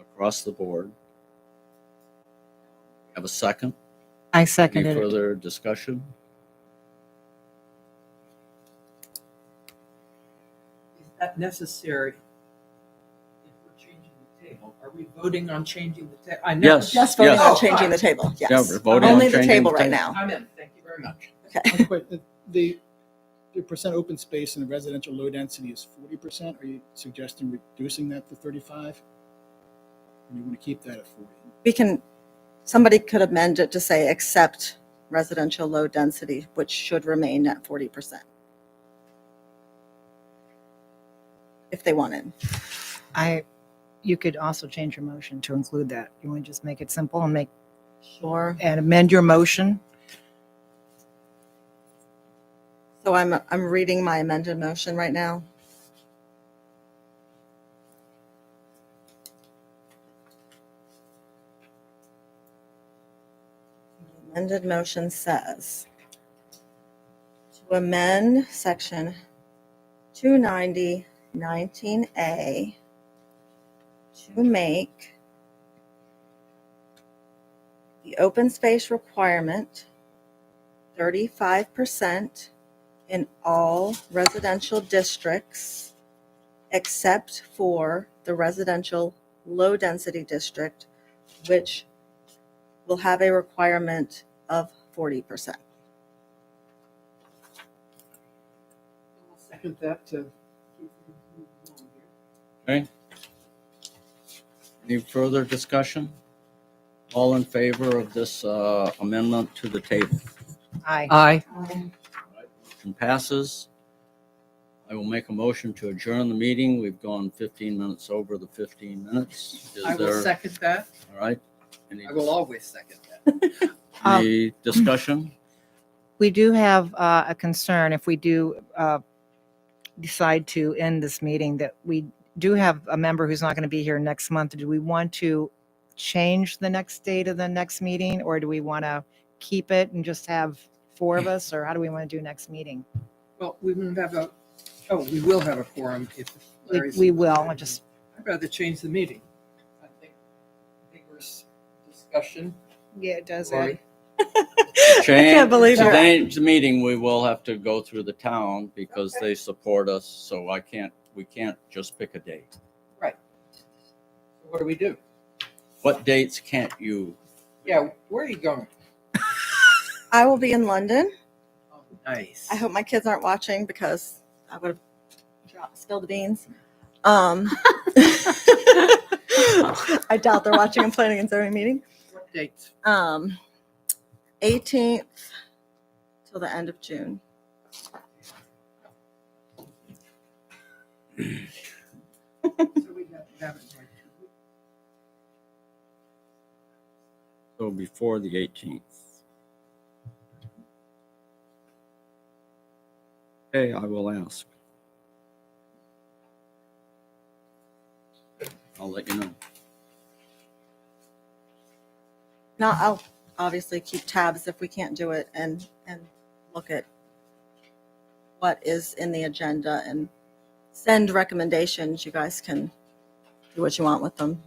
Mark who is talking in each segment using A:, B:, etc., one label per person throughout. A: across the board. Have a second?
B: I
A: Any
B: seconded it.
A: further discussion?
C: Is that necessary? If we're changing the table, are we voting on changing the table? I know.
A: Yes.
D: Just voting on
C: Yes.
D: changing the table, yes.
A: Yeah, we're voting on
D: Only the
A: changing
D: table
A: the
D: right
A: table.
D: now.
C: I'm in, thank you very much.
E: One quick, the- the, the percent open space in the residential low density is forty percent. Are you suggesting reducing that to thirty-five? Or you want to keep that at forty?
D: We can, somebody could amend it to say, except residential low density, which should remain at forty percent. If they wanted.
B: I, you could also change your motion to include that. You want to just make it simple and make,
D: Sure.
B: and amend your motion?
D: So I'm, I'm reading my amended motion right now. Amended motion says to amend section 290 19A to make the open space requirement 35% in all residential districts except for the residential low-density district, which will have a requirement of 40%.
C: I'll Second that to.
A: Any further discussion? All in favor of this uh, amendment to the table?
B: Aye.
C: Aye.
A: Motion passes. I will make a motion to adjourn the meeting. We've gone 15 minutes over the 15 minutes. Is
C: I will
A: there,
C: second that.
A: all right? Any-
C: I will always second that.
A: Any discussion?
B: We do have uh, a concern if we do uh, decide to end this meeting that we do have a member who's not going to be here next month. Do we want to change the next date of the next meeting or do we want to keep it and just have four of us or how do we want to do next meeting?
C: Well, we wouldn't have a, oh, we will have a quorum if.
B: We,
C: Larry's-
B: we will, I just,
C: I'd rather change the meeting. I think vigorous discussion.
B: yeah, it does.
C: Lori,
A: Change-
D: can't believe it.
A: Today's meeting, we will have to go through the town because they support us, so I can't, we can't just pick a date.
C: What do we do?
A: What dates can't you?
C: Yeah, where are you going?
D: I will be in London.
C: Oh, Nice.
D: I hope my kids aren't watching because I would have dropped, spilled the beans. Um, I doubt they're watching a planning and zoning meeting.
C: What dates?
D: um, 18th till the end of June.
C: So we have- have it like two weeks.
A: So before the 18th. Okay, I will ask. I'll let you know.
D: Now I'll obviously keep tabs if we can't do it and and look at what is in the agenda and send recommendations. You guys can do what you want with them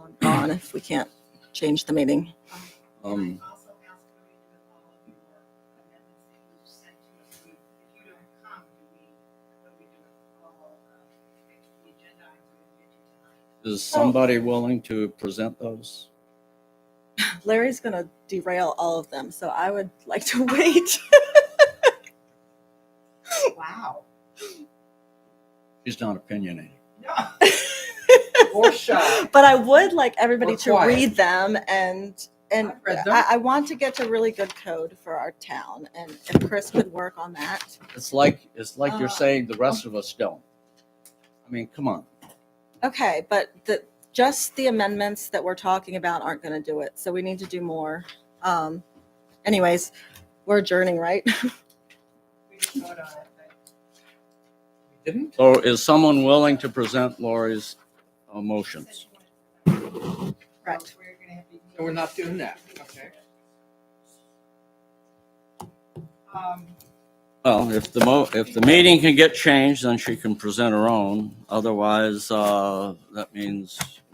D: on, on if we can't change the meeting.
A: Um,
F: also ask Marie to do all of your amendments that you sent to us. We- If you don't come, do we, do we do all, uh, the agenda items we did tonight?
A: Is somebody willing to present those?
D: Larry's going to derail all of them, so I would like to wait.
C: Wow.
A: She's not opinionated.
C: No. Or shy.
D: but I would like everybody
C: Or
D: to
C: quiet.
D: read them and and
C: I've read them.
D: I, I want to get to really good code for our town. And if Chris could work on that,
A: It's like, it's like you're
D: Uh.
A: saying the rest of us don't. I mean, come on.
D: okay. But the just the amendments that we're talking about aren't going to do it. So we need to do more. Um, anyways, we're adjourning, right?
C: We didn't vote on it. right? We didn't?
A: So is someone willing to present Lori's uh, motions?
D: Correct.
F: We're gonna have to.
C: So we're not doing that, okay.
F: Um,
A: Well, if the mo, if the meeting can get changed, then she can present her own. Otherwise, uh, that means